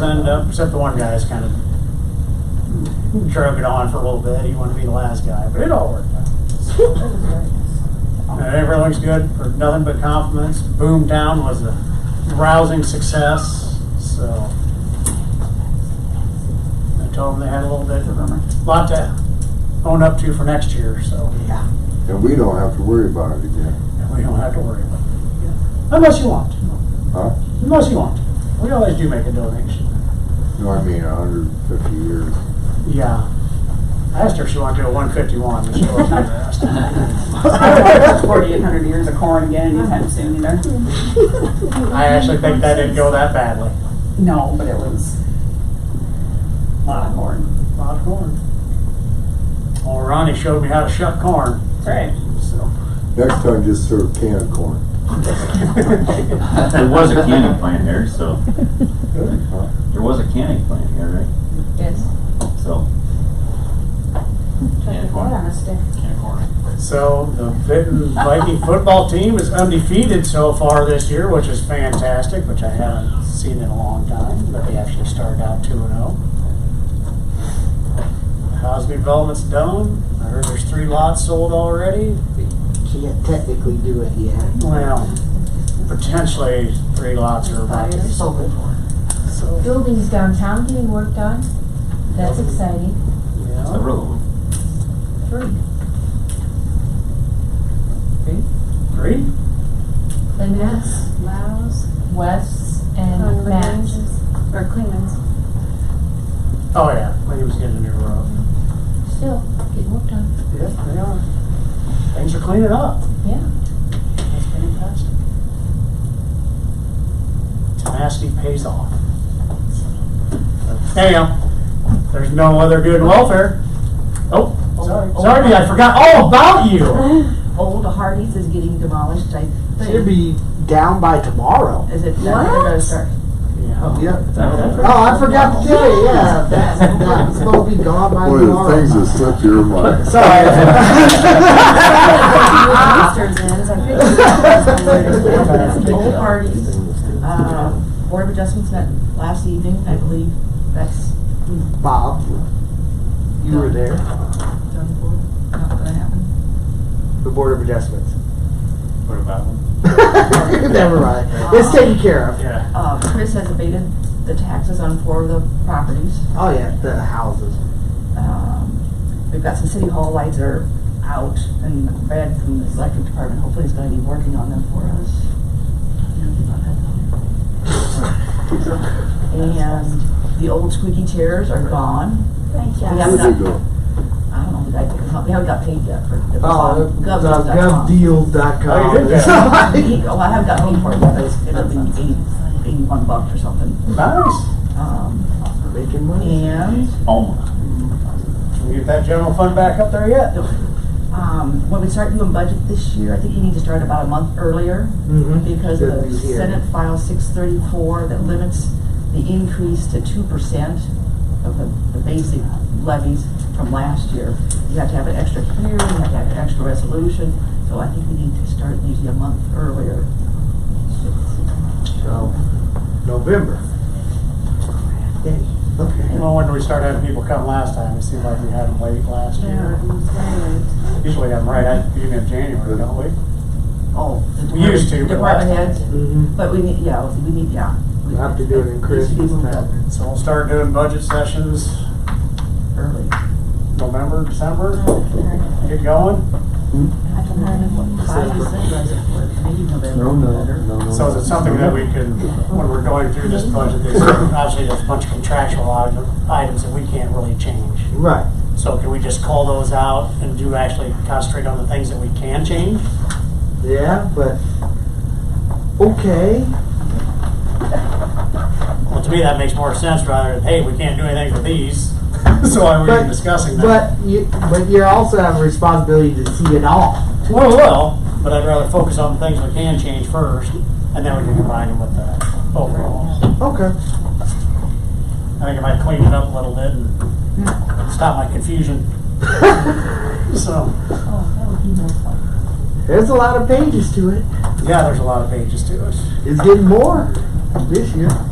End up, except the one guy's kind of drug it on for a little bit. He wanted to be the last guy, but it all worked out. Uh, Everything looks good, for nothing but compliments. Boomtown was a rousing success, so I told them they had a little bit, a lot to own up to for next year, so. Yeah. And we don't have to worry about it again, We don't have to worry about it. Unless you want, to. huh? unless you want. to. We always do make a donation. No, I mean, hundred and fifty years. Yeah. uh, I asked her if she wanted to do a 151, but she wasn't interested. Forty-eight hundred years of corn again anytime soon either. I actually think that didn't go that badly. No, but it was a lot of corn. Lot of corn. Well, Ronnie showed me how to shuck corn, That's right. so. Next time, just serve canned corn. There was a canning plant there, so, Huh? there was a canning plant here, Yes. right? So, Trying to get that on a stick. canning corn. So the Vinton Viking football team is undefeated so far this year, which is fantastic, which I haven't seen in a long time, but they actually started out 2 and 0. Cosby Development's done. I heard there's three lots sold already. Can't technically do it yet. Well, potentially three lots are about to be sold. So, Buildings downtown getting worked on. That's exciting. yeah. Several of them. Three. Three? The Nets, Laos, Wests, and Matt's. Clemens, or Clemens. Oh, yeah. Williams getting a new roof. Still getting worked on. Yep, they are. Things are cleaning up. Yeah. That's fantastic. Tenacity pays off. Anyhow, there's no other good welfare. Oh, sorry, sorry, I forgot all about you. Old Hardee's is getting demolished, I think. Should be down by tomorrow. Is it? What? Yeah. Yep. That was- Oh, I forgot to tell you, yeah, that's, that's supposed to be gone by One of the tomorrow. things that slipped your mind. Old Hardee's, uh, Board of Adjustments met last evening, I believe, that's Bob, you were there, done for, not gonna happen. the Board of Adjustments. What about them? Never mind, it's taken care of. Yeah. Uh, Chris has abated the taxes on four of the properties. Oh, yeah, the houses. Um, We've got some city hall lights are out and Brad from the electric department hopefully is gonna be working on them for us. And the old squeaky chairs are gone. Thank you. Where'd they go? I don't know, the guy took them out. we haven't got paid yet for. it was Oh, on the Oh, gov.com. you did govdeal.com. He- Oh, I haven't got paid for it yet, it's, it's up in eighty, eighty-one bucks or something. Nice. Um, Making money. and Almost. Can we get that general fund back up there yet? Um, when we start doing budget this year, I think we need to start about a month earlier Mhm. because Good the to hear. Senate File six thirty-four that limits the increase to two percent of the, the basic levies from last year. You have to have an extra hearing, you have to have an extra resolution, so I think we need to start maybe a month earlier. So, November. Oh, Yay, Okay. Well, when we started having people come last time, it seemed like we had them wait last year. Usually I'm right at the beginning of January, don't we? Oh, the We used to, department- but Department last- heads, Mhm. but we need, yeah, we need, yeah. We'll have to do it in Needs to be Christmas moved up time. So we'll start doing budget sessions Early. November, December, get going. I can hardly what five to six residents for, maybe November. No, no, no, no. So is it something that we can, when we're going through this budget, there's obviously there's a bunch of contractual item- items that we can't really change. Right. So can we just call those out and do actually concentrate on the things that we can change? Yeah, but okay. Well, to me, that makes more sense rather than, hey, we can't do anything with these. So why are we even discussing that? But you, but you also have a responsibility to see it all. Well, well, but I'd rather focus on the things we can change first and then we can combine them with the overall. Okay. I think it might clean it up a little bit and stop my confusion. So, Oh, There's a lot of pages to it. yeah, there's a lot of pages to it. It's getting more this year.